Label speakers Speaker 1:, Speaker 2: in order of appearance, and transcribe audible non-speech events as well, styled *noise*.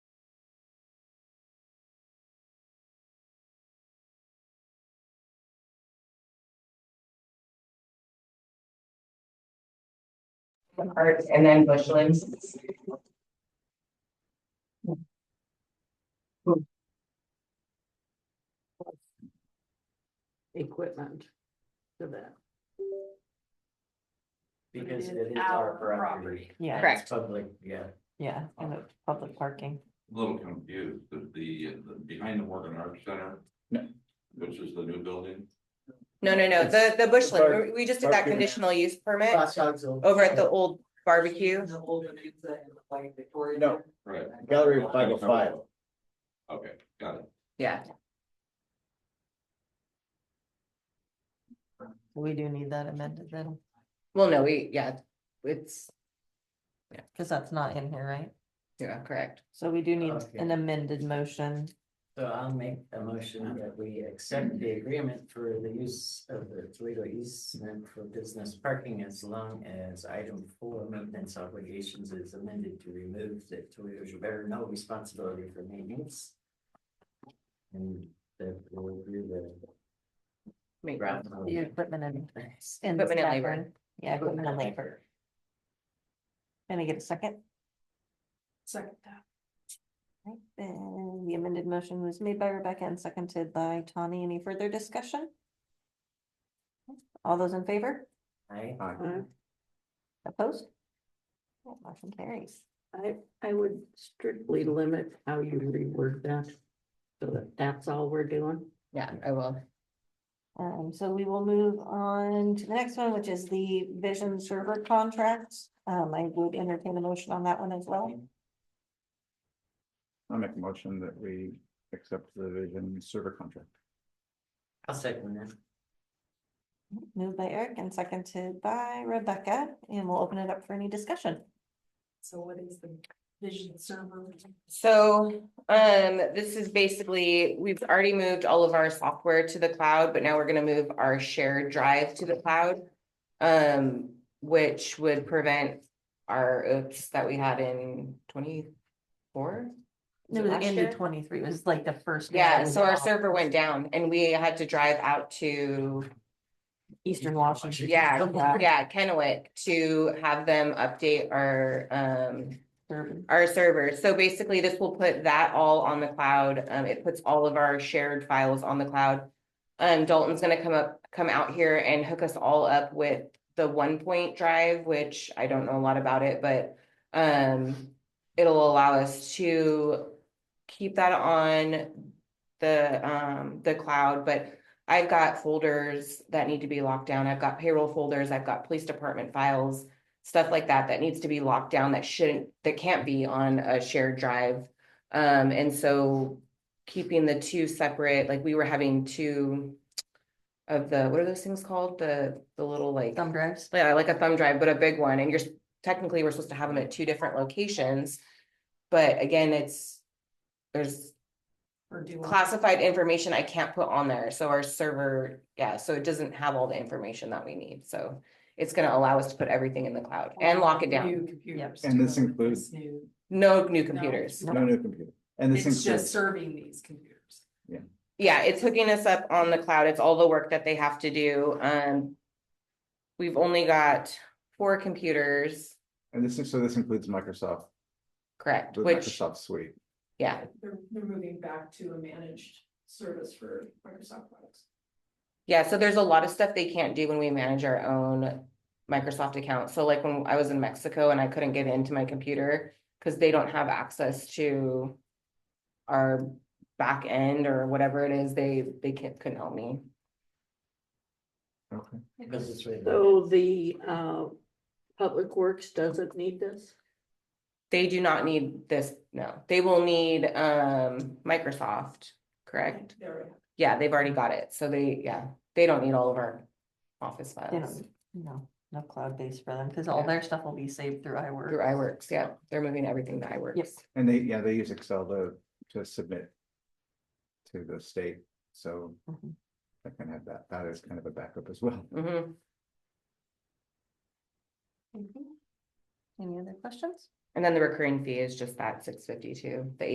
Speaker 1: parks and then bushlands.
Speaker 2: equipment for that.
Speaker 3: Because
Speaker 2: It
Speaker 3: it
Speaker 2: is
Speaker 3: is our
Speaker 2: our
Speaker 3: property.
Speaker 4: Yeah.
Speaker 3: Correct. Public, yeah.
Speaker 4: Yeah, and the public parking.
Speaker 5: a little confused, but the, the, behind the Morgan Arts Center.
Speaker 6: No.
Speaker 5: Which is the new building,
Speaker 1: No, no, no, the, the bushland, we- we just did that
Speaker 6: Barbecue.
Speaker 1: conditional use permit
Speaker 3: Over
Speaker 1: Eh, over at the old barbecue.
Speaker 3: The old pizza and the white Victoria.
Speaker 6: No.
Speaker 5: right,
Speaker 6: Gallery five oh five.
Speaker 5: okay, got it.
Speaker 1: Yeah.
Speaker 4: We do need that amended then,
Speaker 1: Well, no, we, yeah, it's,
Speaker 4: because that's not in here, right?
Speaker 1: yeah, correct.
Speaker 4: So we do need
Speaker 3: Okay.
Speaker 4: an amended motion.
Speaker 3: So I'll make a motion that we accept the agreement for the use of the Toledo easement for business parking as long as item four maintenance obligations is amended to remove the Toledo should better no responsibility for maintenance. And that will agree the
Speaker 1: Make-
Speaker 3: ground.
Speaker 4: The equipment and. and
Speaker 1: Equipment and
Speaker 4: staff
Speaker 1: labor.
Speaker 4: and- Yeah, equipment and labor. Can I get a second?
Speaker 2: Second.
Speaker 4: Right, Then the amended motion was made by Rebecca and seconded by Tawny. Any further discussion? All those in favor?
Speaker 3: Aye.
Speaker 4: Opposed? Yeah, Motion carries.
Speaker 2: I, I would strictly limit how you reword that. So that that's all we're doing.
Speaker 1: Yeah, I will.
Speaker 4: Um, so we will move on to the next one, which is the vision server contract. Um, I would entertain a motion on that one as well.
Speaker 6: I'll make a motion that we accept the vision server contract.
Speaker 3: I'll second that.
Speaker 4: Moved by Eric and seconded by Rebecca, and we'll open it up for any discussion.
Speaker 2: So what is the vision server?
Speaker 1: So, um, this is basically, we've already moved all of our software to the cloud, but now we're gonna move our shared drive to the cloud. Um, which would prevent our oops that we had in twenty-four. Was
Speaker 4: No,
Speaker 1: it
Speaker 4: the
Speaker 1: last
Speaker 4: end of
Speaker 1: year?
Speaker 4: twenty-three was like the first.
Speaker 1: Yeah, so our
Speaker 4: server
Speaker 1: server went down and we had to drive out to,
Speaker 4: Eastern Washington.
Speaker 1: yeah,
Speaker 4: Yeah.
Speaker 1: yeah, Kennewick to have them update our, um,
Speaker 4: *laughs* server.
Speaker 1: our servers. So basically, this will put that all on the cloud. Um, it puts all of our shared files on the cloud. Um, Dalton's gonna come up, come out here and hook us all up with the one point drive, which I don't know a lot about it, but um, it'll allow us to keep that on the um, the cloud, but I've got folders that need to be locked down. I've got payroll folders, I've got police department files stuff like that that needs to be locked down that shouldn't that can't be on a shared drive um and so keeping the two separate like we were having two of the what are those things called the the little like
Speaker 4: Thumb drives.
Speaker 1: yeah, like a thumb drive, but a big one, and you're s- technically, we're supposed to have them at two different locations. But again, it's, there's classified information I can't put on there, so our server, yeah, so it doesn't have all the information that we need, so. It's gonna allow us to put everything in the cloud and lock it down,
Speaker 7: computers.
Speaker 6: And this includes-
Speaker 1: no new computers.
Speaker 6: No new computer. And this
Speaker 7: It's just
Speaker 6: includes,
Speaker 7: serving these computers.
Speaker 1: Yeah, it's hooking us up on the cloud. It's all the work that they have to do, um. We've only got four computers,
Speaker 6: and this is, so this includes Microsoft,
Speaker 1: correct,
Speaker 6: the
Speaker 1: which,
Speaker 6: Microsoft suite.
Speaker 1: yeah,
Speaker 7: They're, they're moving back to a managed service for Microsoft products.
Speaker 1: Yeah, so there's a lot of stuff they can't do when we manage our own Microsoft account. So like when I was in Mexico and I couldn't get into my computer because they don't have access to our back end or whatever it is, they they can't couldn't help me.
Speaker 6: Okay.
Speaker 3: Because it's really.
Speaker 2: So the uh, Public Works doesn't need this?
Speaker 1: They do not need this, no. They will need um Microsoft, correct?
Speaker 7: There we go.
Speaker 1: Yeah, they've already got it. So they, yeah, they don't need all of our office
Speaker 4: They
Speaker 1: files.
Speaker 4: don't, no, no cloud base for them, because all
Speaker 1: Yeah.
Speaker 4: their stuff will be saved through iWork.
Speaker 1: Through iWorks, yeah, they're moving everything to iWorks.
Speaker 4: Yes.
Speaker 6: And they, yeah, they use Excel to, to submit to the state, so
Speaker 7: Mm-hmm.
Speaker 4: Mhm.
Speaker 6: I can have that, that is kind of a backup as well.
Speaker 1: hmm
Speaker 4: Any other questions? Mm-hmm.
Speaker 1: And then the recurring fee is just that six fifty-two, the